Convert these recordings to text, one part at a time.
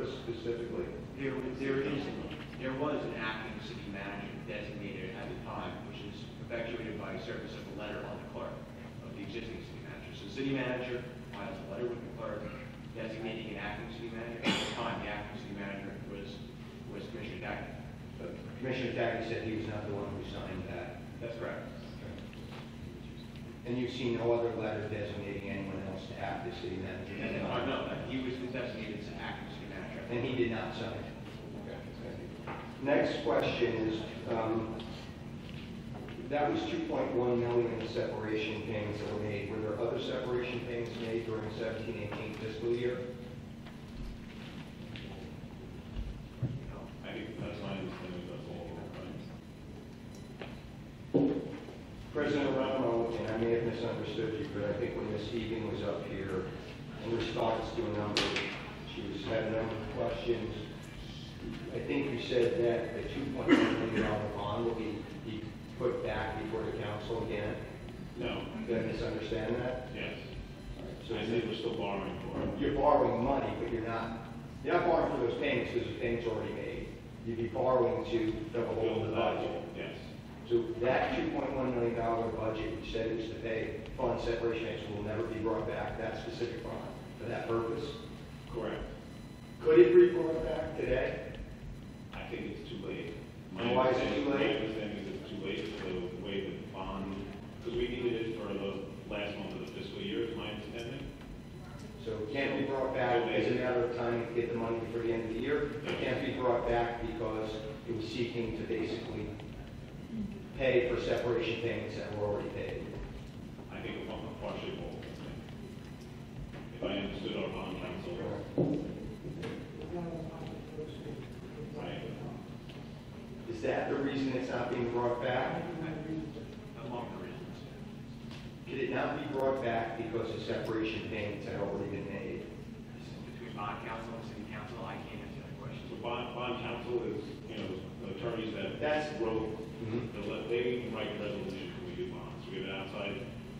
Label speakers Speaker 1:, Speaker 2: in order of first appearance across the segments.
Speaker 1: specifically?
Speaker 2: There, there is, there was an acting city manager designated at the time, which is effectuated by service of a letter on the clerk of the existing city manager. So city manager files a letter with the clerk designating an acting city manager. At the time, the acting city manager was, was Commissioner Dackey.
Speaker 1: But Commissioner Dackey said he was not the one who signed that.
Speaker 2: That's correct.
Speaker 1: And you've seen no other letter designating anyone else to act as city manager?
Speaker 2: And, then- oh, no, he was designated as acting city manager.
Speaker 1: And he did not sign it? Next question is, um, that was 2.1 million in separation payments that were made. Were there other separation payments made during 17, 18 fiscal year?
Speaker 3: I think that's my understanding, that's all we're running.
Speaker 1: President Romo, and I may have misunderstood you, but I think when Ms. Egan was up here, in response to a number, she was had a number of questions. I think you said that the two point one million dollar bond will be, be put back before the council again.
Speaker 3: No,
Speaker 1: Did I misunderstand that?
Speaker 3: yes.
Speaker 1: So
Speaker 3: I said we're still borrowing for it.
Speaker 1: you're borrowing money, but you're not, you're not borrowing for those payments because the payment's already made. You'd be borrowing to double
Speaker 3: Build
Speaker 1: the budget.
Speaker 3: Yes,
Speaker 1: So that two point one million dollar budget you said is to pay fund separation payments will never be brought back, that specific bond, for that purpose.
Speaker 3: correct.
Speaker 1: Could it be brought back today?
Speaker 3: I think it's too late.
Speaker 1: And why is it too
Speaker 3: My
Speaker 1: late?
Speaker 3: understanding is it's too late for the way the bond, because we needed it for the last month of the fiscal year, is my understanding.
Speaker 1: So it can't be brought back as a matter of time to get the money before the end of the year. It can't be brought back because it was seeking to basically pay for separation payments that were already paid.
Speaker 3: I think it was partially whole. If I understood our bond counsel, right,
Speaker 1: Is that the reason it's not being brought back?
Speaker 2: Among the reasons.
Speaker 1: Could it not be brought back because the separation payments had already been made?
Speaker 2: Between bond council and city council, I can't answer that question.
Speaker 3: so bond, bond counsel is, you know, the attorneys that.
Speaker 1: That's-
Speaker 3: Wrote
Speaker 1: Mm-hmm.
Speaker 3: They let- They write resolution for we do bonds. We have an outside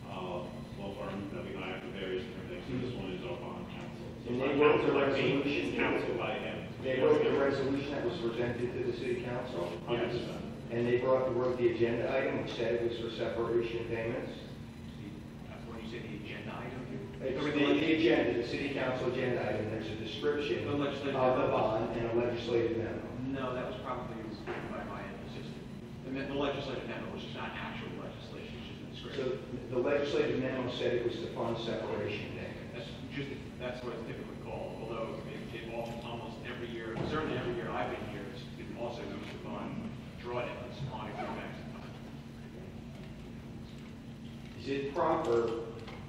Speaker 3: uh, law firm that we hire for various different things, and this one is our bond counsel. So
Speaker 1: And they
Speaker 3: my
Speaker 1: wrote the
Speaker 3: counsel, like, being
Speaker 1: resolution.
Speaker 3: Counsel by him.
Speaker 1: They wrote the resolution that was presented to the city council,
Speaker 3: Hundred percent.
Speaker 1: and they brought, wrote the agenda item, which said it was for separation payments.
Speaker 2: uh, When you say the agenda item,
Speaker 1: It's
Speaker 2: you-
Speaker 1: on the agenda, the city council agenda item, there's a description
Speaker 2: The
Speaker 1: of the
Speaker 2: legislative-
Speaker 1: bond and a legislative memo.
Speaker 2: No, that was probably written by my assistant. The me- The legislative memo was just not actual legislation, it's just a description.
Speaker 1: So the legislative memo said it was to fund separation payments.
Speaker 2: That's just, that's what it's typically called, although it, it al- almost every year, certainly every year I've been here, it's been also used to fund drawdowns on equipment.
Speaker 1: Is it proper,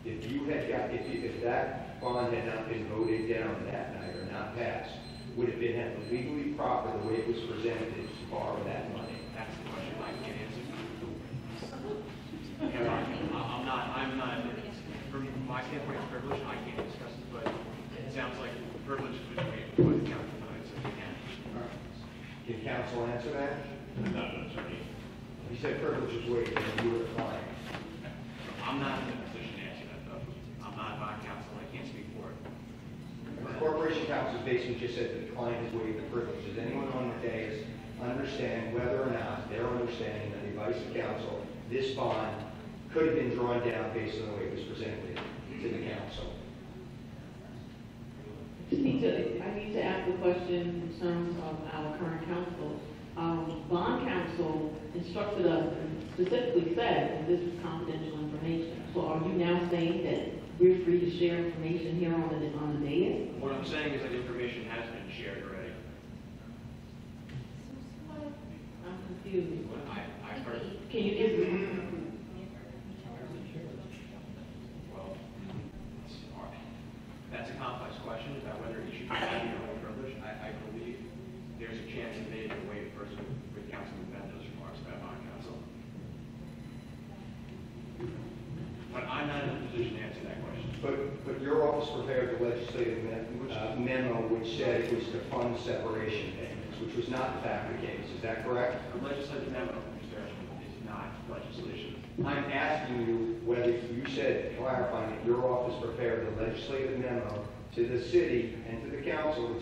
Speaker 1: if you had got, if, you- if that bond had not been voted down that night or not passed, would it have been legally proper, the way it was presented, to borrow that money?
Speaker 2: That's the question I can't answer. And I- I- I'm not, I'm not, from my standpoint, it's privilege, I can't discuss it, but it sounds like privilege is between the council tonight, so we can.
Speaker 1: Can counsel answer that?
Speaker 3: Not an attorney.
Speaker 1: He said privilege is waived, and you were the client.
Speaker 2: I'm not in a position to answer that, though. I'm not bond counsel, I can't speak for it.
Speaker 1: The Corporation counsel basically just said that the client has waived the privilege. Does anyone on the dais understand whether or not they're understanding that the advice of counsel, this bond could have been drawn down based on the way it was presented to the council?
Speaker 4: Need to, I need to ask a question in terms of our current council. Um, bond counsel instructed us and specifically said that this was confidential information. So are you now saying that we're free to share information here on the, on the dais?
Speaker 2: What I'm saying is that information has been shared already.
Speaker 4: I'm confused.
Speaker 2: What I, I heard,
Speaker 4: Can you give me?
Speaker 2: well, it's hard. that's a complex question about whether it should be waived or privilege. I, I believe there's a chance that they can waive first with, with Councilman Bendo's remarks about bond counsel. But I'm not in a position to answer that question.
Speaker 1: But, but your office prepared the legislative me- uh, memo which said it was to fund separation payments, which was not in fact the case. Is that correct?
Speaker 2: A legislative memo, Mr. Ashman, is not legislation.
Speaker 1: I'm asking you whether you said, clarifying that your office prepared a legislative memo to the city and to the council which